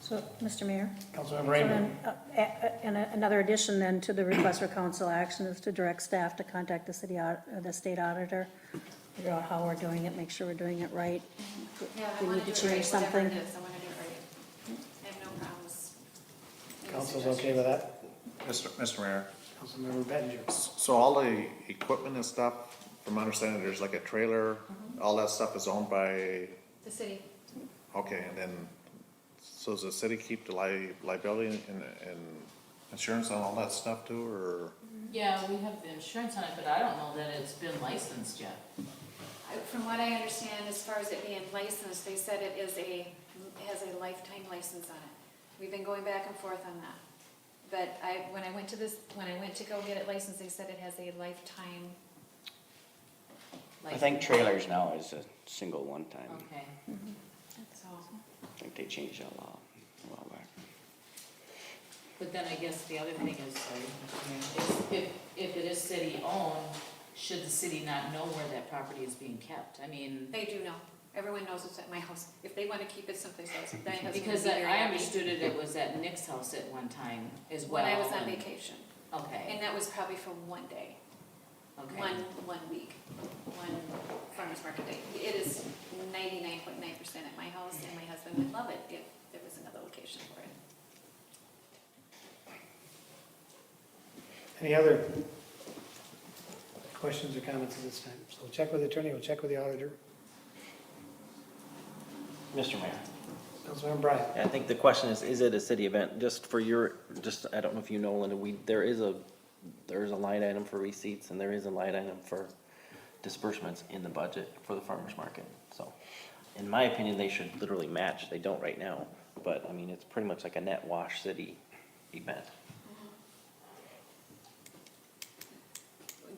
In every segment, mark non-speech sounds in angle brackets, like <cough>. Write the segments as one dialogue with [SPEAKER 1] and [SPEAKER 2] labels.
[SPEAKER 1] So, Mr. Mayor?
[SPEAKER 2] Councilmember
[SPEAKER 1] So
[SPEAKER 2] Raymond.
[SPEAKER 1] then, uh, a- a- And a- another addition then to the request for council action is to direct staff to contact the city, au- uh, the state auditor, figure out how we're doing it, make sure we're doing it right.
[SPEAKER 3] Yeah, I
[SPEAKER 1] We
[SPEAKER 3] want
[SPEAKER 1] need
[SPEAKER 3] to do
[SPEAKER 1] to
[SPEAKER 3] it right,
[SPEAKER 1] change
[SPEAKER 3] whatever
[SPEAKER 1] something.
[SPEAKER 3] it is, I want to do it right. I have no problems. with the
[SPEAKER 2] Council's
[SPEAKER 3] suggestion.
[SPEAKER 2] okay with that?
[SPEAKER 4] Mr. Mr. Mayor,
[SPEAKER 2] Councilmember Bettinger.
[SPEAKER 4] so all the equipment and stuff, from my understanding, there's like a trailer, all that stuff is owned by,
[SPEAKER 3] The city,
[SPEAKER 4] okay, and then, so does the city keep the li- liability and, and insurance on all that stuff too, or?
[SPEAKER 5] Yeah, we have the insurance on it, but I don't know that it's been licensed yet.
[SPEAKER 3] I- from what I understand, as far as it being licensed, they said it is a, has a lifetime license on it. We've been going back and forth on that. But I, when I went to this, when I went to go get it licensed, they said it has a lifetime.
[SPEAKER 6] I
[SPEAKER 5] Like,
[SPEAKER 6] think trailers now is a single one time.
[SPEAKER 5] Okay,
[SPEAKER 3] So,
[SPEAKER 6] I think they changed that law a while back.
[SPEAKER 5] but then I guess the other thing is, sorry, Mr. Mayor, is if, if it is city owned, should the city not know where that property is being kept? I mean,
[SPEAKER 3] they do know. Everyone knows it's at my house. If they want to keep it someplace else, my husband would be
[SPEAKER 5] because I
[SPEAKER 3] very
[SPEAKER 5] I
[SPEAKER 3] happy.
[SPEAKER 5] understood it, it was at Nick's house at one time as well.
[SPEAKER 3] When I was on
[SPEAKER 5] and-
[SPEAKER 3] vacation, and
[SPEAKER 5] Okay,
[SPEAKER 3] that was probably for one day. one,
[SPEAKER 5] okay.
[SPEAKER 3] one week, one farmer's market day. It is ninety-nine point nine percent at my house, and my husband would love it if there was another location for it.
[SPEAKER 2] Any other questions or comments at this time? So we'll check with the attorney, we'll check with the auditor.
[SPEAKER 7] Mr. Mayor,
[SPEAKER 2] Councilmember Bryan.
[SPEAKER 7] I think the question is, is it a city event? Just for your, just, I don't know if you know, Linda, we, there is a, there is a line item for receipts and there is a line item for disbursements in the budget for the farmer's market, so. In my opinion, they should literally match. They don't right now, but I mean, it's pretty much like a net wash city event.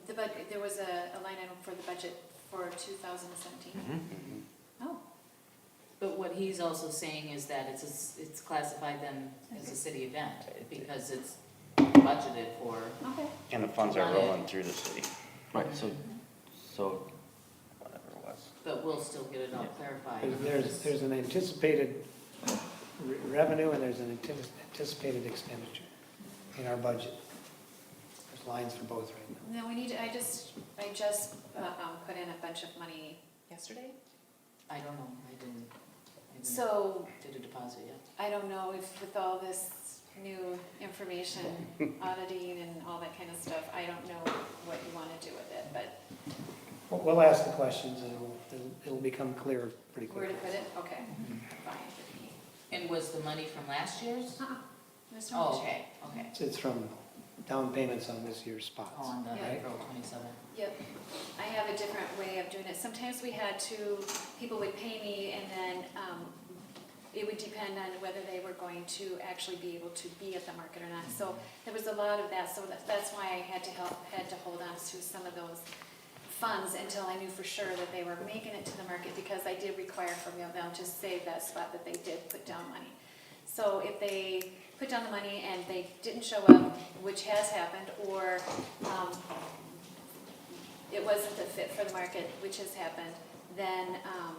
[SPEAKER 3] The bud, there was a, a line item for the budget for two thousand
[SPEAKER 5] Mm-hmm.
[SPEAKER 3] seventeen. Oh,
[SPEAKER 5] But what he's also saying is that it's, a s- it's classified then as a city event, because it's budgeted for,
[SPEAKER 3] okay.
[SPEAKER 6] And the funds are
[SPEAKER 5] Got it.
[SPEAKER 6] rolling through the city.
[SPEAKER 7] Right, so, so, whatever it was.
[SPEAKER 5] but we'll still get it all clarified.
[SPEAKER 2] There's, there's an anticipated re- revenue and there's an antici- anticipated expenditure in our budget. There's lines for both right now.
[SPEAKER 3] No, we need, to- I just, I just, uh, um, put in a bunch of money yesterday,
[SPEAKER 5] I don't know, I didn't, I didn't.
[SPEAKER 3] so
[SPEAKER 5] Did a deposit yet?
[SPEAKER 3] I don't know if with all this new information, auditing and all that kind of stuff, I don't know what you wanna do with it, but
[SPEAKER 2] We'll- We'll ask the questions and it'll, it'll- it'll become clear pretty
[SPEAKER 3] Where to
[SPEAKER 2] quickly.
[SPEAKER 3] put it, okay, fine.
[SPEAKER 5] And was the money from last year's?
[SPEAKER 3] Uh-uh, There's no
[SPEAKER 5] Oh,
[SPEAKER 3] change.
[SPEAKER 5] okay, okay.
[SPEAKER 2] It's- It's from down payments on this year's spots.
[SPEAKER 5] Oh, On the
[SPEAKER 3] Yeah.
[SPEAKER 5] April twenty-seventh.
[SPEAKER 3] Yep, I have a different way of doing it. Sometimes we had to, people would pay me and then um, it would depend on whether they were going to actually be able to be at the market or not. So there was a lot of that, so that- that's why I had to help, had to hold on to some of those funds until I knew for sure that they were making it to the market because I did require from them to save that spot that they did put down money. So if they put down the money and they didn't show up, which has happened, or um, it wasn't a fit for the market, which has happened, then, um,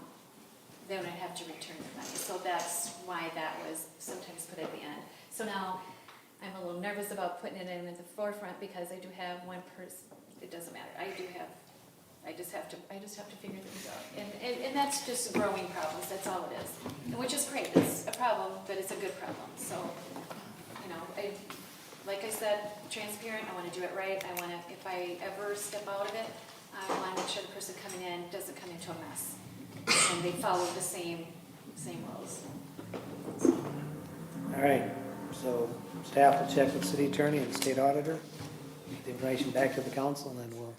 [SPEAKER 3] then I'd have to return the money. So that's why that was sometimes put at the end. So now, I'm a little nervous about putting it in at the forefront because I do have one person, it doesn't matter, I do have, I just have to, I just have to figure things out. And, and, and that's just growing problems, that's all it is. And Which is great, it's a problem, but it's a good problem, so, you know, I, like I said, transparent, I wanna do it right, I wanna, if I ever step out of it, I wanna make sure the person coming in doesn't come into a mess. And they follow the same, same rules.
[SPEAKER 2] All right, so staff will check with city attorney and state auditor, get the information back to the council, and then we'll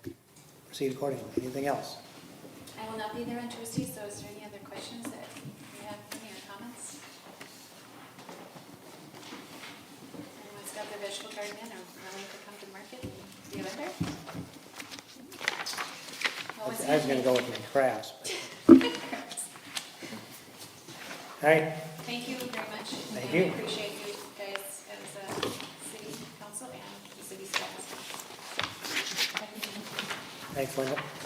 [SPEAKER 2] proceed accordingly. Anything else?
[SPEAKER 3] I will not be there on Tuesday, so is there any other questions that you have, any other comments? Anyone's got their vegetable garden in or wanting to come to market and be a vendor?
[SPEAKER 2] I
[SPEAKER 3] What was
[SPEAKER 2] was gonna go with my crafts. but- All right,
[SPEAKER 3] <laughs> Thank you very much.
[SPEAKER 2] Thank
[SPEAKER 3] And
[SPEAKER 2] you.
[SPEAKER 3] I appreciate you guys as a city council and the city staff.
[SPEAKER 2] thanks, Linda.